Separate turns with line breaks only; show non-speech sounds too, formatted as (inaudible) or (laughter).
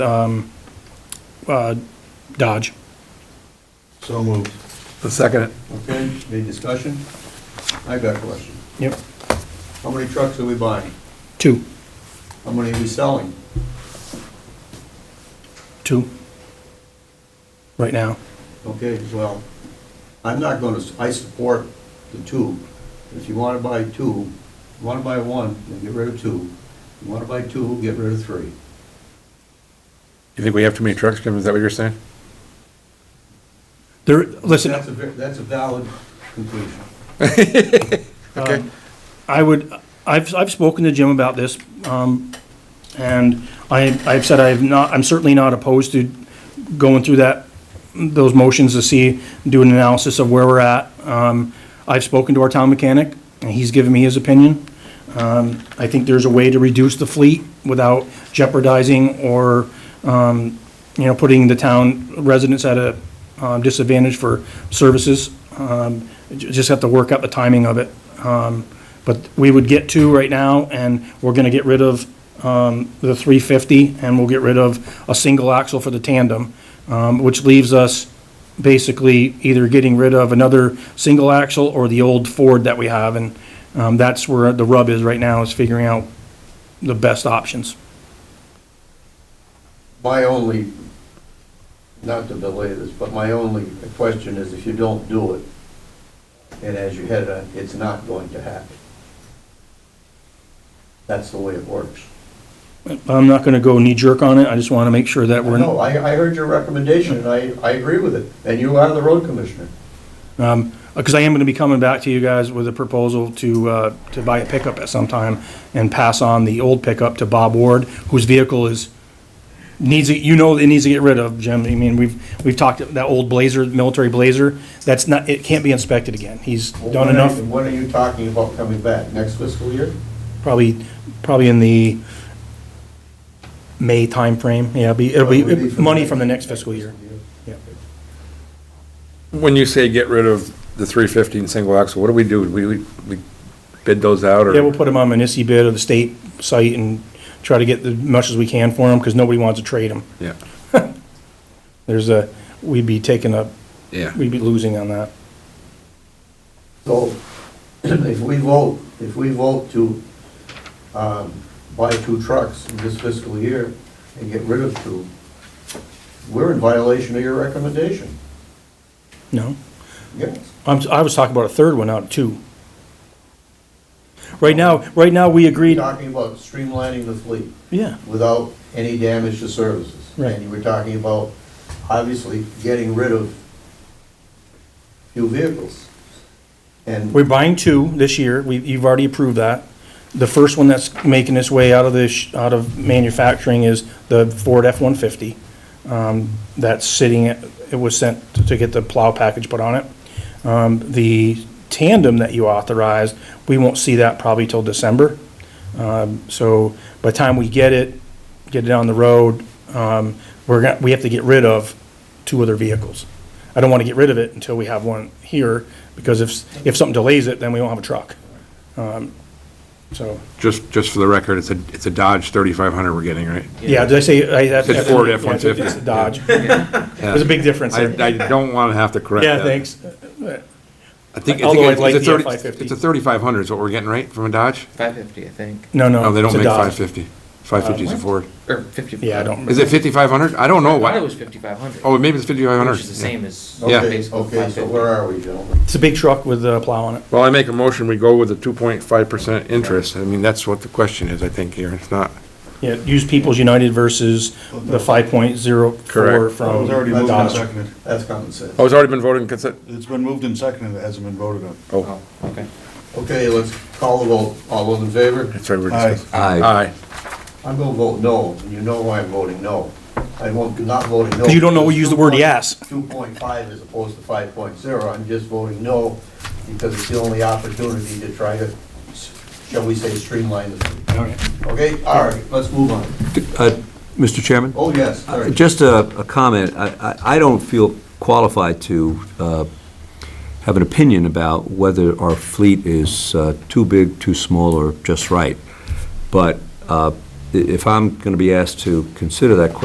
um, uh, Dodge.
So moved.
I'll second it.
Okay, any discussion? I got a question.
Yep.
How many trucks are we buying?
Two,
How many are we selling?
two. Right now.
Okay, well, I'm not gonna, s- I support the two. If you wanna buy two, you wanna buy one, then get rid of two. You wanna buy two, get rid of three.
You think we have too many trucks, Jim? Is that what you're saying?
There, listen,
That's a, ve- that's a valid conclusion.
Okay.
I would, I've, I've spoken to Jim about this, um, and I, I've said I've not, I'm certainly not opposed to going through that, those motions to see, do an analysis of where we're at. Um, I've spoken to our town mechanic, and he's given me his opinion. Um, I think there's a way to reduce the fleet without jeopardizing or, um, you know, putting the town residents at a um, disadvantage for services. Um, ju- just have to work out the timing of it. Um, but we would get two right now, and we're gonna get rid of, um, the three fifty, and we'll get rid of a single axle for the tandem, um, which leaves us basically either getting rid of another single axle or the old Ford that we have, and, um, that's where the rub is right now, is figuring out the best options.
My only, not to belay this, but my only question is if you don't do it, and as you head on, it's not going to happen. That's the way it works.
I'm not gonna go knee jerk on it, I just wanna make sure that we're.
No, I, I heard your recommendation, and I, I agree with it, and you are the road commissioner.
Because I am going to be coming back to you guys with a proposal to, uh, to buy a pickup at some time and pass on the old pickup to Bob Ward, whose vehicle is, needs, it- you know, it needs to get rid of, Jim. I mean, we've, we've talked, that old Blazer, military Blazer, that's not, it can't be inspected again. He's done
When are
enough,
you- When are you talking about coming back, next fiscal year?
probably, probably in the May timeframe. Yeah, it'll be, it'll
Or would it
be
be for
money from the next fiscal year. Yeah.
When you say get rid of the three fifty and single axle, what do we do? We, we we bid those out or?
Yeah, we'll put them on Manistee bid or the state site and try to get as much as we can for them because nobody wants to trade them.
Yeah,
There's a, we'd be taking a,
yeah.
we'd be losing on that.
So, (clears throat) if we vote, if we vote to, um, buy two trucks in this fiscal year and get rid of two, we're in violation of your recommendation.
No?
Yes.
I'm, I was talking about a third one out of two. Right now, right now, we agreed,
Talking about streamlining the fleet
yeah,
without any damage to services.
Right.
And you were talking about, obviously, getting rid of few vehicles. And
we're buying two this year, we, you've already approved that. The first one that's making its way out of this, out of manufacturing is the Ford F-150. Um, that's sitting, at- it was sent to get the plow package put on it. Um, the tandem that you authorized, we won't see that probably till December. Um, So by the time we get it, get it on the road, um, we're, gonna- we have to get rid of two other vehicles. I don't want to get rid of it until we have one here, because if, if something delays it, then we won't have a truck. Um, So,
Just, just for the record, it's a, it's a Dodge thirty-five hundred we're getting, right?
yeah, did I say? I- that's-
It's Ford
yeah, it's-
F-150.
It's a Dodge. (laughs) There's a big difference
I,
there.
I don't want to have to correct that.
Yeah, thanks.
I think, I
Although
think
I'd like
it's a
the
thirty,
F550.
it's a thirty-five hundred is what we're getting, right, from a Dodge?
Five fifty, I think,
No, no.
No, they
it's
don't
a
make
Dodge. Uh,
five fifty. Five fifty's a Ford.
or fifty.
Yeah, I don't.
Is it fifty-five hundred? I don't know.
I thought it
why.
was fifty-five hundred.
Oh, maybe it's fifty-five hundred.
Which is the same as.
Yeah.
Okay,
basically
okay, so
550.
where are we, gentlemen?
It's a big truck with a plow on it.
Well, I make a motion, we go with the two point five percent interest. I mean, that's what the question is, I think, here. It's not.
Yeah, Use People's United versus the 5.04
Correct.
from
already moved and
Dodge.
seconded.
That's common sense.
Oh, it's already been voted and consent?
It's been moved and seconded, it hasn't been voted on.
Oh,
Oh, okay.
Okay, let's call the vote. All those in favor?
that's right, we're
Aye.
discussing. Aye.
I'm gonna vote no, and you know why I'm voting no. I won't, not voting no.
You don't know we use the word yes.
Two point five as opposed to five point zero, I'm just voting no, because it's the only opportunity to try to, shall we say, streamline the thing. Okay, all right, let's move on.
Uh, Mr. Chairman, Uh,
Oh, yes, all right.
just a a comment. I I- I don't feel qualified to uh, have an opinion about whether our fleet is uh, too big, too small, or just right. But uh, i- if I'm going to be asked to consider that question,